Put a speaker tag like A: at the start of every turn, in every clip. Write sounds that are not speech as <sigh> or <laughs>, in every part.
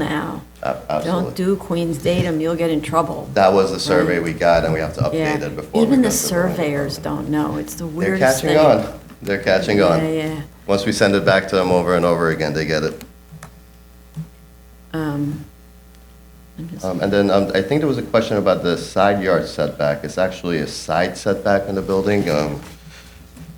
A: now.
B: Ab-
A: Don't
B: Absolutely.
A: do Queen's datum, you'll get in trouble.
B: That was the survey we got, and we have to update
A: Yeah,
B: it before. we
A: even
B: go
A: the
B: to vote.
A: surveyors don't know, it's the
B: They're
A: weirdest thing.
B: catching on. They're catching
A: Yeah,
B: on.
A: yeah.
B: Once we send it back to them over and over again, they get it.
A: Um, I'm just-
B: Um, And then um, I think there was a question about the side yard setback. It's actually a side setback in the building um,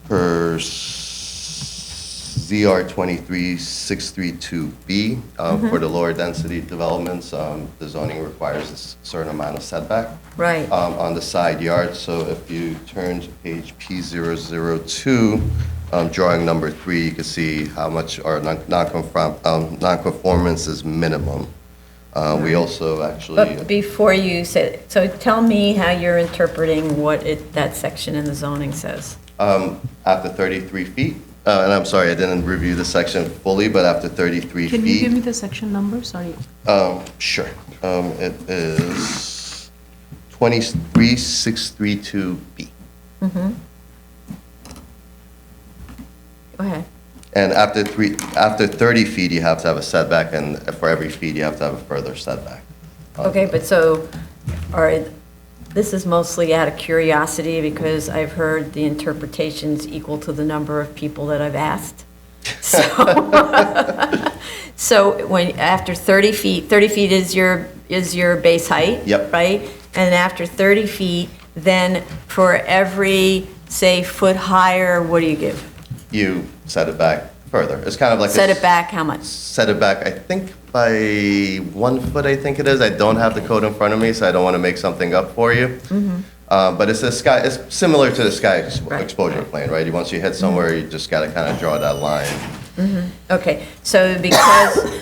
B: per ZR 23632B um, for the lower density developments. um, The zoning requires a s- certain amount of setback.
A: Right,
B: um, on the side yard. So if you turn to page P002, um, drawing number three, you can see how much our non- non-conform- um, non-conformance is minimum. Uh, We also
A: but
B: actually,
A: before you say, so tell me how you're interpreting what it, that section in the zoning says.
B: um, after 33 feet, uh, and I'm sorry, I didn't review the section fully, but after 33
C: Can you give me
B: feet.
C: the section number? Sorry.
B: um, Sure. Um, It is 23632B.
A: Go ahead.
B: And after three, after 30 feet, you have to have a setback, and for every feet, you have to have a further setback.
A: Okay, but so, all right, this is mostly out of curiosity because I've heard the interpretations equal to the number of people that I've
B: <laughs>
A: asked. So, <laughs> so when, after 30 feet, 30 feet is your, is your base height?
B: Yep.
A: Right? And after 30 feet, then for every, say, foot higher, what do you give?
B: You set it back further. It's kind of like. a
A: Set it
B: s-
A: back how much?
B: Set it back, I think by one foot, I think it is. I don't have the code in front of me, so I don't want to make something up for you. Uh, But it's a sky, it's similar to the sky ex-
A: Mm-hmm. Right, Mm-hmm.
B: exposure plane, right? You- Once you hit somewhere, you just got to kind of draw that line.
A: Okay, so because,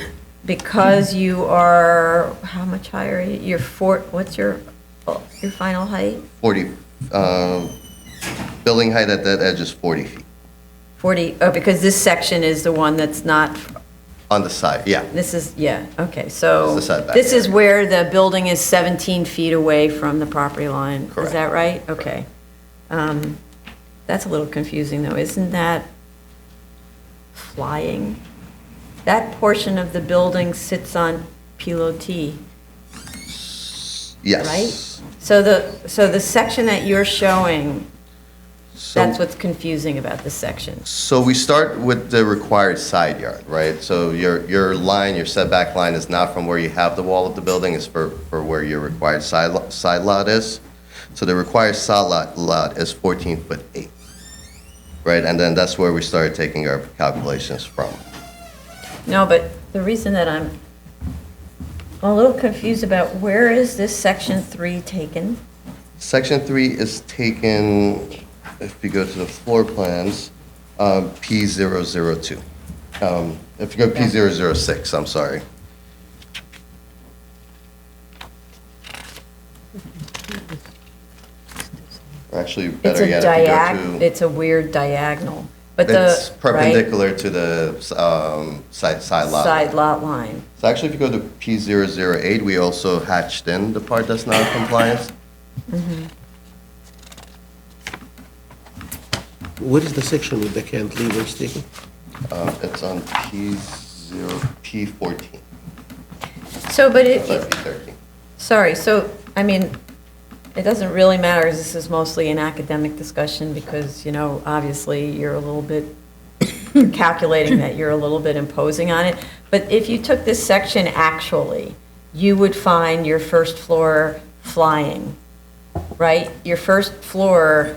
A: because you are, how much higher, are you? you're four, what's your, oh, your final height?
B: 40, uh, building height at that edge is 40 feet,
A: 40, oh, because this section is the one that's not,
B: on the side, yeah.
A: this is, yeah, okay, so.
B: This is the setback
A: This is where the building is 17 feet away from the property line. Is
B: Correct.
A: that right? Okay. Um, That's a little confusing, though, isn't that flying? That portion of the building sits on pilotis.
B: Yes.
A: right? So the, so the section that you're showing,
B: So-
A: that's what's confusing about this section.
B: So we start with the required side yard, right? So your, your line, your setback line is not from where you have the wall of the building, it's for, for where your required side, lo- side lot is. So the required side lot, lot is 14 foot 8, right? And then that's where we started taking our calculations from.
A: No, but the reason that I'm a little confused about where is this section three taken?
B: Section 3 is taken, if you go to the floor plans, um, P002. Um, If you go P006, I'm sorry. Or Actually,
A: It's
B: better
A: a
B: yet, if you
A: diag,
B: go to...
A: it's a weird diagonal, but the.
B: It's
A: right,
B: perpendicular to the um, side side lot.
A: Side lot line.
B: So actually, if you go to P008, we also hatched in the part that's non-compliance.
D: What is the section with the cantilever is taken?
B: Um, It's on P0, P14.
A: So, but it,
B: Sorry, P13.
A: Sorry, so, I mean, it doesn't really matter, 'cause this is mostly an academic discussion, because, you know, obviously, you're a little bit <coughs> calculating that you're a little bit imposing on it, but if you took this section actually, you would find your first floor flying, right? Your first floor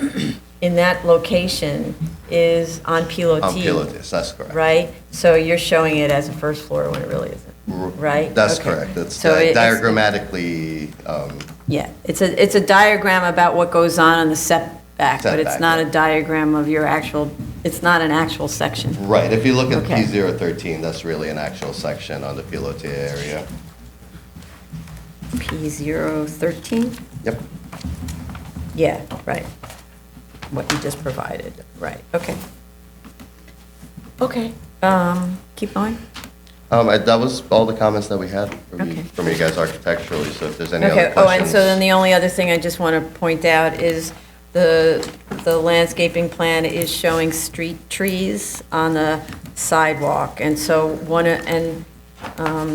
A: in that location is on
B: On
A: pilotis.
B: Pilatus, that's correct.
A: Right? So you're showing it as a first floor when it really isn't, right?
B: That's
A: Okay.
B: correct. It's
A: So it-
B: di-
A: it's-
B: diagrammatically, um,
A: Yeah, it's a, it's a diagram about what goes on in the setback, but it's
B: Setback,
A: not a
B: yeah.
A: diagram of your actual, it's not an actual section.
B: right, if you look at
A: Okay.
B: P013, that's really an actual section on the Pilotis area.
A: P013?
B: Yep.
A: Yeah, right. What you just provided, right, okay. Okay, um, keep going.
B: Um, I- That was all the comments that we had from you-
A: Okay.
B: from you guys architecturally, so if there's any other
A: Okay, oh, and
B: questions.
A: so then the only other thing I just want to point out is the, the landscaping plan is showing street trees on the sidewalk, and so one, of- and um,